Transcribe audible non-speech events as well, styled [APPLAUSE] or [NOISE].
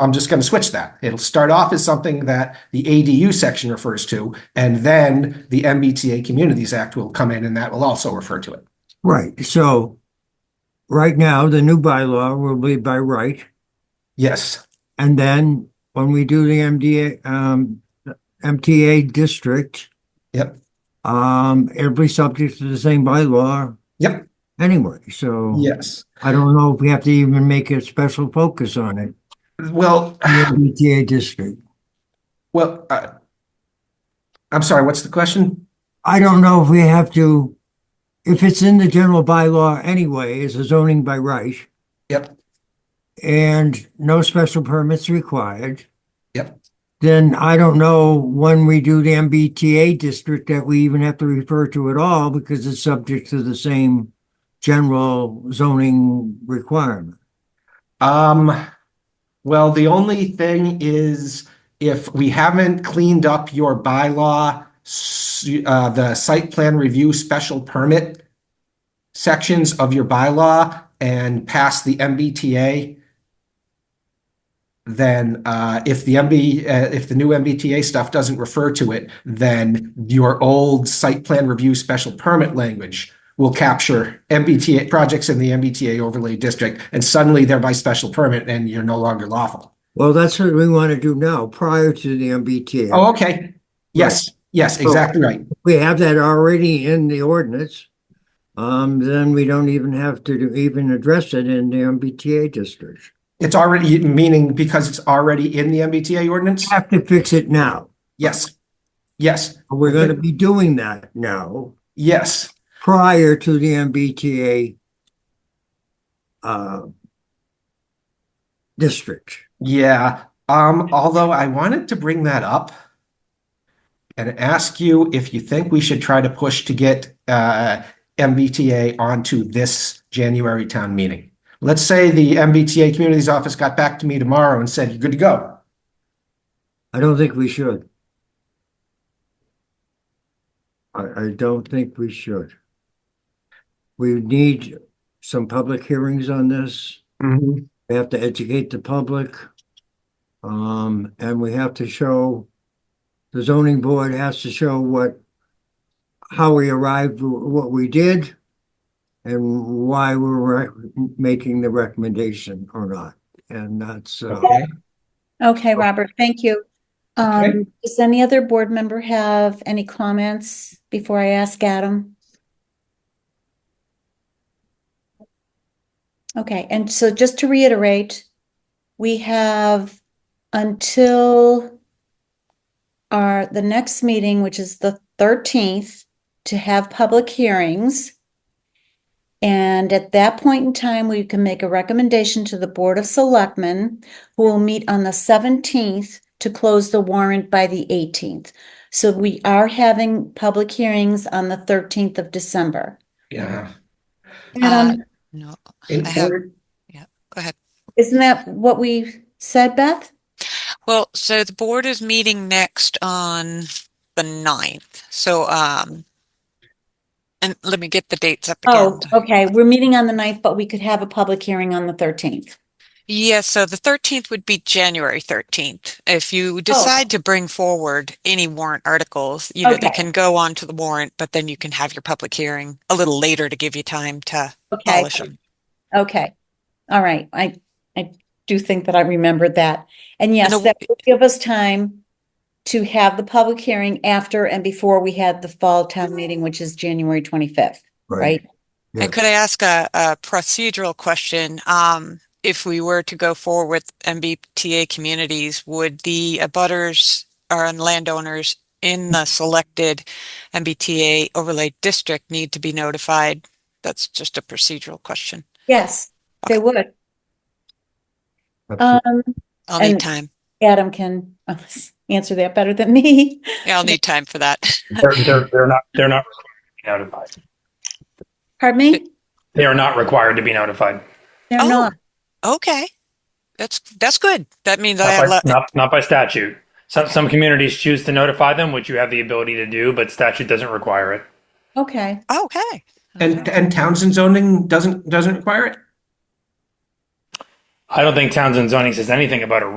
I'm just going to switch that. It'll start off as something that the ADU section refers to, and then the MBTA Communities Act will come in and that will also refer to it. Right, so right now, the new bylaw will be by right. Yes, And then when we do the MDA, um, MTA district, yep, um, it'll be subject to the same bylaw yep, anyway. So yes. I don't know if we have to even make a special focus on it, Well, the MTA district. well, uh, I'm sorry, what's the question? I don't know if we have to, if it's in the general bylaw anyway, it's a zoning by right. Yep. And no special permits required. Yep. Then I don't know when we do the MBTA district that we even have to refer to at all because it's subject to the same general zoning requirement. Um, well, the only thing is if we haven't cleaned up your bylaw, s- uh, the site plan review special permit sections of your bylaw and passed the MBTA, then uh, if the MB, uh, if the new MBTA stuff doesn't refer to it, then your old site plan review special permit language will capture MBTA projects in the MBTA overlay district, and suddenly they're by special permit, and you're no longer lawful. Well, that's what we want to do now, prior to the MBTA. Oh, okay. Yes, yes, exactly right. we have that already in the ordinance, um, then we don't even have to do- even address it in the MBTA district. It's already, meaning because it's already in the MBTA ordinance? Have to fix it now. Yes. Yes, We're gonna be doing that now, yes, prior to the MBTA uh, district. yeah. Um, although I wanted to bring that up and ask you if you think we should try to push to get uh MBTA onto this January town meeting. Let's say the MBTA Communities Office got back to me tomorrow and said, you're good to go. I don't think we should. I, I don't think we should. We need some public hearings on this. We have to educate the public. Um, and we have to show, the zoning board has to show what, how we arrived, what we did, and why we're rec- making the recommendation or not. And that's, uh, Okay. Okay, Robert, thank you. Okay. Um, does any other board member have any comments before I ask Adam? Okay, and so just to reiterate, we have until our, the next meeting, which is the thirteenth, to have public hearings. And at that point in time, we can make a recommendation to the Board of Selectmen who will meet on the 17th to close the warrant by the 18th. So we are having public hearings on the 13th of December. Yeah. Um, Uh, No, In I have, order- go ahead. Isn't that what we said, Beth? Well, so the board is meeting next on the ninth. So, um, and let me get the dates up Oh, again. okay, we're meeting on the 9th, but we could have a public hearing on the 13th. Yes, so the thirteenth would be January thirteenth. If Oh. you decide to bring forward any warrant articles, you know, they Okay. can go on to the warrant, but then you can have your public hearing a little later to give you time to Okay, polish them. okay. All right, I, I do think that I remembered that. And yes, And the- that would give us time to have the public hearing after and before we had the fall town meeting, which is January 25th, right? Yeah. And could I ask a, a procedural question? Um, if we were to go forward with MBTA communities, would the abutters or landowners in the selected MBTA overlay district need to be notified? That's just a procedural question. Yes, they would. Absolutely. Um, I'll need And- time. Adam can uh, [LAUGHS] answer that better than me. Yeah, I'll need time for that. [LAUGHS] They're, they're, they're not, they're not required to be notified. Pardon me? They are not required to be notified. They're Oh, not. Okay. That's, that's good. That means I Not have, by, le- not, not by statute. Some, some communities choose to notify them, which you have the ability to do, but statute doesn't require it. Okay. okay. And, and Townsend zoning doesn't, doesn't require it? I don't think Townsend zoning says anything about a